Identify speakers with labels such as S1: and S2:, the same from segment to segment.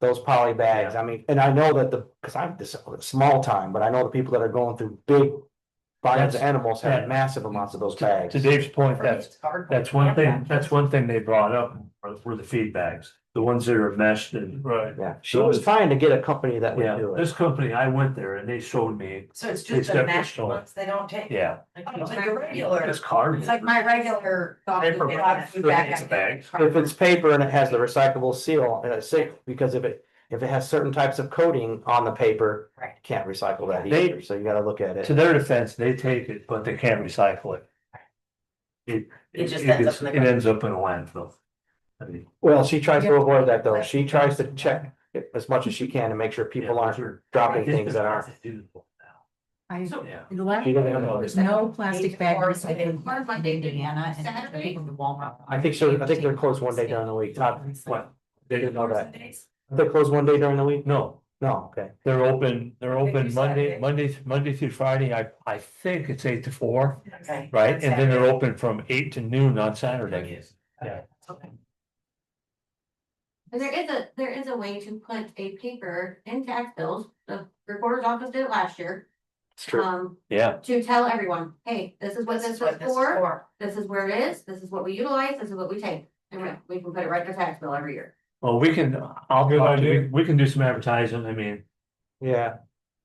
S1: those poly bags. I mean, and I know that the, cause I'm this small time, but I know the people that are going through big. Barns
S2: That's-
S1: of animals
S2: yeah.
S1: have massive amounts of those
S2: To
S1: bags.
S2: to Dave's point, that's,
S3: It's hard.
S2: that's one thing, that's one thing they brought up were- were the feed bags, the ones that are meshed and. Right.
S1: Yeah, she was trying to get a company that would
S2: Yeah,
S1: do it.
S2: this company, I went there and they showed me,
S3: So it's
S2: It's
S3: just the
S2: got
S3: mashed
S2: crystal.
S3: ones they don't take.
S2: yeah.
S3: Like, it's like a regular,
S2: It's cardboard.
S3: it's like my regular.
S2: Paper bag. It's a bag.
S1: If it's paper and it has the recyclable seal, uh, say, because if it, if it has certain types of coating on the paper.
S3: Right.
S1: Can't recycle that
S2: They-
S1: either, so you gotta look at it.
S2: To their defense, they take it, but they can't recycle it. It,
S3: It
S2: it
S3: just ends up
S2: gets-
S3: in
S2: it
S3: the-
S2: ends up in a landfill. I mean,
S1: Well, she tries to
S3: Yeah.
S1: avoid that though. She tries to check it as much as she can to make sure people
S2: yeah,
S1: aren't
S2: sure.
S1: dropping things that aren't.
S4: I,
S3: So-
S2: Yeah.
S4: the last,
S1: She doesn't know.
S4: there's no plastic bag
S3: Or is it
S4: recycling
S3: hard
S4: in
S3: Monday to
S4: Indiana and I
S3: Saturday?
S4: think the Walmart.
S1: I think so. I think they're closed one day during the week. Todd,
S2: What?
S1: They didn't know that.
S3: Sundays?
S1: They're closed one day during the week?
S2: No,
S1: No, okay.
S2: they're open, they're
S3: They do
S2: open Monday,
S3: Saturday.
S2: Monday, Monday through Friday. I, I think it's eight to four,
S3: Okay.
S2: right? And then they're open from eight to noon on Saturday. yeah.
S3: Okay.
S5: There is a, there is a way to put a paper in tax bills, the recorder's office did it last year,
S1: It's
S5: um,
S2: Yeah,
S5: to tell everyone, hey, this is what this was for. This is where it is, this is what we utilize, this is what we take, and we- we can put it right to tax bill every year.
S2: well, we can, I'll,
S6: Good
S2: talk to-
S6: idea.
S2: we- we can do some advertising. I mean,
S1: Yeah,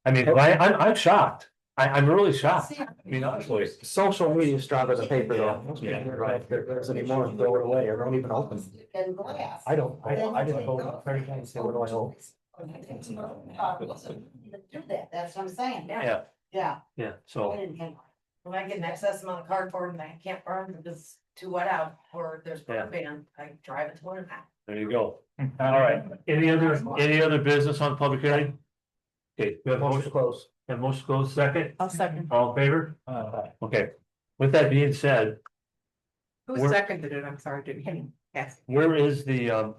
S2: I mean, I, I'm, I'm shocked. I, I'm really shocked. Ah, I mean, honestly.
S1: social media is stronger than paper though.
S2: Yeah, yeah.
S1: Right, there, there's any more, throw it away or don't even open.
S3: And glass.
S1: I don't, I, I didn't vote on thirty times, say, what do I owe?
S3: Do that, that's what I'm saying.
S2: Yeah.
S3: Yeah.
S2: Yeah, so,
S3: When I get an excess amount of cardboard and I can't burn because to what out, or there's
S2: Yeah.
S3: broadband, I drive it to one out.
S2: there you go. All right, any other, any other business on public hearing? Okay, we have
S1: Motion
S2: motion,
S1: to close.
S2: have motion closed second,
S4: I'll Oh, second.
S2: all in favor?
S6: Aye.
S2: Okay, with that being said,
S4: Who
S2: We're-
S4: seconded it? I'm sorry, did you? Yes.
S2: where is the, um,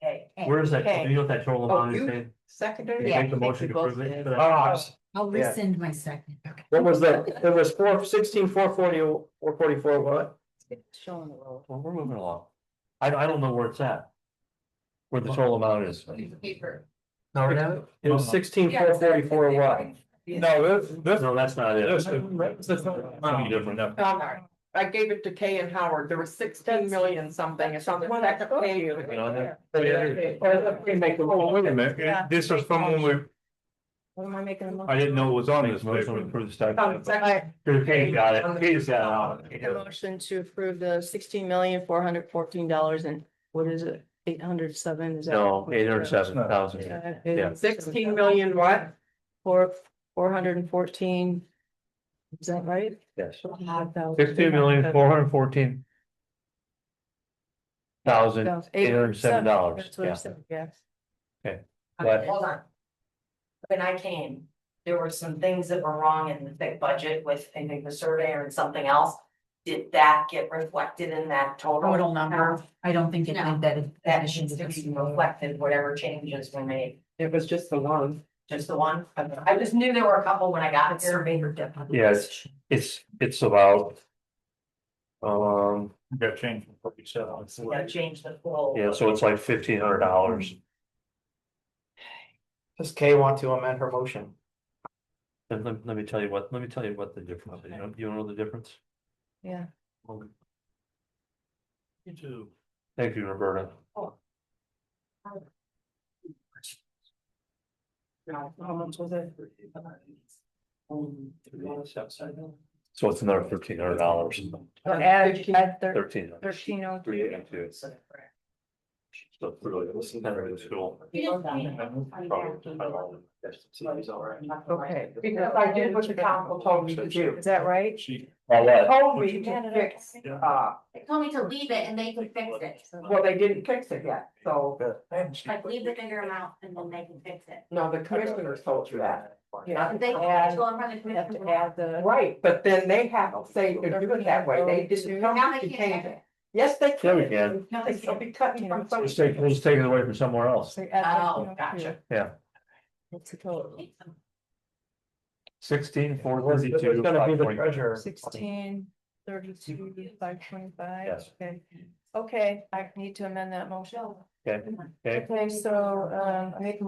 S3: Hey.
S2: where is that,
S4: Okay.
S2: do you know what that total
S4: Oh,
S2: amount is?
S4: you-
S2: Dave?
S4: Seconded?
S2: Did you make the motion to approve it? for that?
S4: I'll
S1: Yeah.
S4: rescind my second. Okay.
S1: What was that? It was four, sixteen, four forty, four forty-four, what?
S4: Showing the road.
S2: Well, we're moving along. I, I don't know where it's at. Where the total amount is.
S3: Paper.
S2: No,
S1: It was sixteen, four forty-four, what?
S6: No, this, this,
S2: No, that's not it.
S6: this. is- this is-
S2: Something different.
S7: Um, I gave it to Kay and Howard, there was sixteen million something, it's on the second page.
S2: Been on there?
S6: Oh, wait a minute, this is from when we,
S7: What am I making? a motion?
S6: I didn't know it was on this
S2: Motion to
S6: paper.
S2: approve the start.
S7: On the second-
S2: Kate got it, Kate's got
S7: Make a
S2: it.
S7: Motion to approve the sixteen million, four hundred fourteen dollars and what is it, eight hundred seven, is that?
S2: No, eight hundred seven thousand. Yeah.
S7: thousand. Sixteen million what? Four, four hundred and fourteen. Is that right?
S2: Yes. Sixteen
S7: Sixteen
S2: million, four hundred fourteen. Thousand,
S7: Eight
S2: $807,
S7: hundred seven dollars.
S2: yeah.
S7: Yes.
S2: but
S3: Hold on. When I came, there were some things that were wrong in the thick budget with, I think, the surveyor and something else. Did that get reflected in that total? Um,
S4: Total number. I don't think it
S5: No.
S4: meant that. it-
S3: That needs to be reflected, whatever changes were made,
S7: It was just the one.
S3: just the one, I just knew there were a couple when I got here.
S2: yes, it's, it's about. Um,
S6: Got changed from what you said on the-
S3: Yeah, change the full.
S2: yeah, so it's like fifteen hundred dollars
S1: Does Kay want to amend her motion?
S2: And let, let me tell you what, let me tell you what the difference, is. you know, you know the difference?
S7: Yeah.
S2: You do. Thank you, Roberta.
S7: How much was it?
S2: So it's another thirteen hundred dollars.
S7: Add, add thir-
S2: Thirteen.
S7: thirteen oh
S2: Three
S7: two.
S2: eighty-two.
S3: So the correct-
S2: So it's really, it's not really cool.
S7: Okay, because I did what the council told me to do. Is that right?
S6: She-
S2: All that.
S7: Told me to fix, uh,
S5: They told me to leave it and they could fix it,
S7: well, they didn't fix it yet, so.
S5: like leave the bigger amount and then they can fix it.
S7: No, the commissioners told you that.
S5: If They
S7: Add-
S5: can't go in front of the commission.
S7: the. Right, but then they have to say to do it that way, they didn't
S5: Now
S7: have
S5: they
S7: to
S5: can't
S7: change
S5: have
S7: it.
S5: it.
S7: Yes, they
S2: Yeah, we
S7: can.
S2: can.
S7: No, they should be cutting from some.
S2: Let's take, let's take it away from somewhere else.
S3: Oh, gotcha.
S2: Sixteen, four
S1: Who's
S2: thirty-two,
S1: gonna be
S2: five
S1: the
S2: twenty.
S1: treasurer?
S7: Sixteen, thirty-two, five twenty-five.
S2: Yes.
S7: Okay, I need to amend that motion.
S2: Okay.
S7: Okay, so, um, I make a